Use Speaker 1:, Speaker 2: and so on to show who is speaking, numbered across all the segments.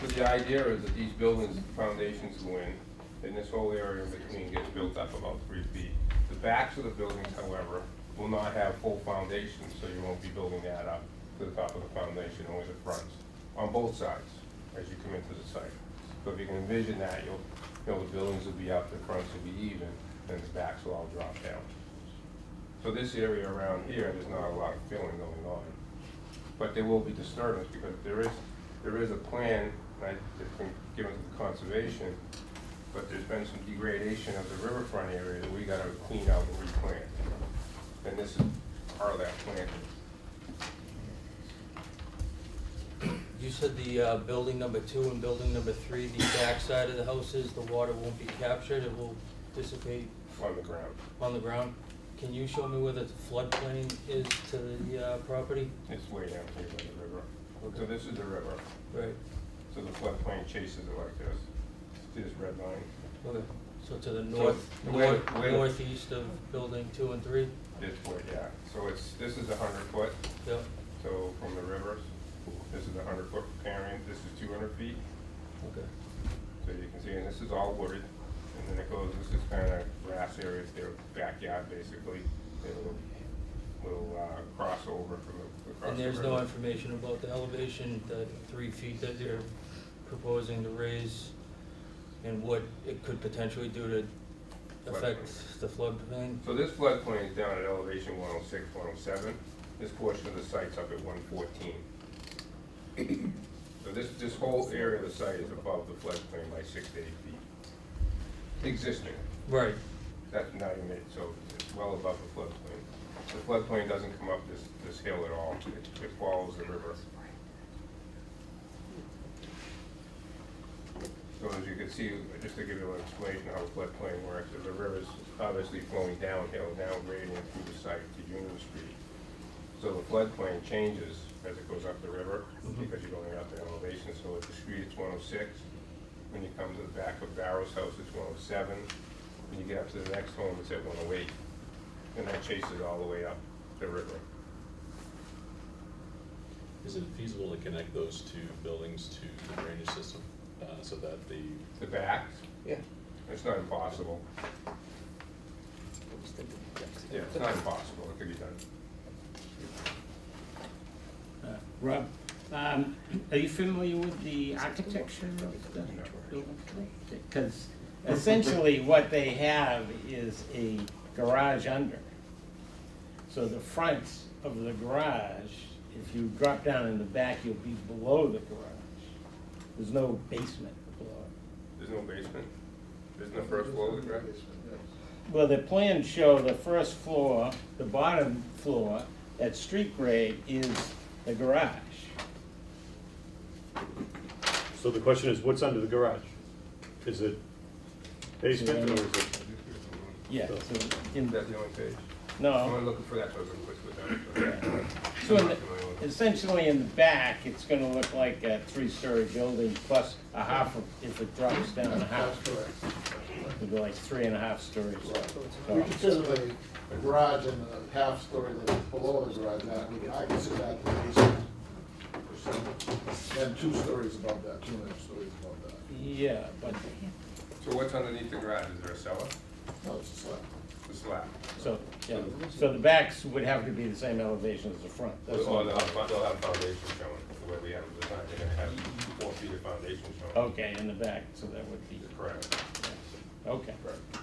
Speaker 1: But the idea is that these buildings, the foundations go in, and this whole area in between gets built up about three feet. The backs of the buildings, however, will not have full foundations, so you won't be building that up to the top of the foundation, only the fronts, on both sides, as you come into the site. So if you can envision that, you'll, you know, the buildings will be up, the fronts will be even, and the backs will all drop down. So this area around here, there's not a lot of filling going on. But there will be disturbance because there is, there is a plan, and I, it's been given to the conservation, but there's been some degradation of the riverfront area that we gotta clean out and replant. And this is part of that plan.
Speaker 2: You said the uh, building number two and building number three, the backside of the houses, the water won't be captured, it will dissipate
Speaker 1: on the ground.
Speaker 2: on the ground. Can you show me where the floodplain is to the uh, property?
Speaker 1: It's way down here by the river. So this is the river,
Speaker 2: Right,
Speaker 1: so the floodplain chases it like this, see this red line?
Speaker 2: okay, so to the north,
Speaker 1: the way-
Speaker 2: north-
Speaker 1: way-
Speaker 2: northeast of building two and three?
Speaker 1: This way, yeah. So it's, this is a hundred foot,
Speaker 2: Yep,
Speaker 1: so from the rivers, this is a hundred foot parent, this is two hundred feet.
Speaker 2: okay.
Speaker 1: So you can see, and this is all wooded, and then it goes, this is kind of grass area, it's their backyard basically. They have a little, little uh, crossover from the, across
Speaker 2: And
Speaker 1: the
Speaker 2: there's no
Speaker 1: river.
Speaker 2: information about the elevation, the three feet that they're proposing to raise, and what it could potentially do to affect the floodplain?
Speaker 1: So this floodplain is down at elevation 106, 107. This portion of the site's up at 114. So this, this whole area of the site is above the floodplain by six to eight feet. Existing,
Speaker 2: Right,
Speaker 1: that's not even it, so it's well above the floodplain. The floodplain doesn't come up this, this hill at all, It- it follows the river. So as you can see, just to give you an explanation of how floodplain works, is the river's obviously flowing downhill, now grading through the site to Union Street. So the floodplain changes as it goes up the river, because you're going up the elevation, so at the street it's one oh six. When you come to the back of Barrow's house, it's one oh seven, when you get up to the next home, it's at one oh eight. And that chases all the way up the river.
Speaker 3: Is it feasible to connect those two buildings to the drainage system, uh, so that the,
Speaker 1: The back,
Speaker 4: Yeah.
Speaker 1: it's not impossible, yeah, it's not impossible, it could be done.
Speaker 5: Rob, um, are you familiar with the architecture of the building? Because essentially what they have is a garage under. So the fronts of the garage, if you drop down in the back, you'll be below the garage. There's no basement below it.
Speaker 1: There's no basement, isn't the first floor of the garage?
Speaker 5: Well, the plans show the first floor, the bottom floor, at street grade is the garage.
Speaker 6: So the question is, what's under the garage? Is it basement or is it?
Speaker 5: Yeah, so in,
Speaker 1: That's the only page. I'm
Speaker 5: no,
Speaker 1: only looking for that, so I was gonna put it down.
Speaker 5: Uh-huh. so in the- essentially in the back, it's gonna look like a three-story building plus a half, of- if it drops down a half, it'd be like three and a half stories.
Speaker 4: We consider the garage and the half story that is below the garage, that, we- I consider that the basement. And two stories above that, two and a half stories above that.
Speaker 5: Yeah, but,
Speaker 1: So what's underneath the garage, is there a cellar,
Speaker 4: No, it's a slab.
Speaker 1: a slab?
Speaker 5: so, yeah, so the backs would have to be the same elevation as the front. That's
Speaker 1: Or
Speaker 5: all.
Speaker 1: they'll have, they'll have foundation showing, the way we have it designed, they're gonna have four feet of foundation showing.
Speaker 5: Okay, in the back, so that would be,
Speaker 1: Correct,
Speaker 5: okay.
Speaker 1: correct.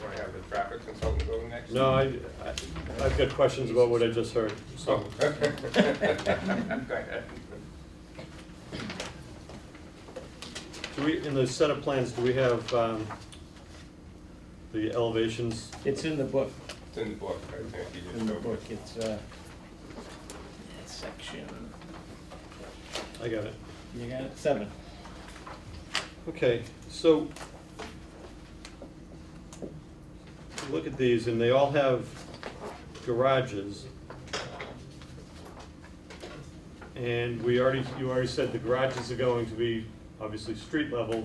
Speaker 1: Want to have the traffic consultant go next?
Speaker 6: No, I, I- I've got questions about what I just heard, so.
Speaker 1: Oh. Go ahead.
Speaker 6: Do we, in the set of plans, do we have um, the elevations?
Speaker 5: It's in the book,
Speaker 1: It's in the book, I think, you just
Speaker 5: in the
Speaker 1: showed
Speaker 5: book,
Speaker 1: it.
Speaker 5: it's, uh, section,
Speaker 6: I got it.
Speaker 5: you got it, seven.
Speaker 6: Okay, so look at these, and they all have garages. And we already, you already said the garages are going to be obviously street level,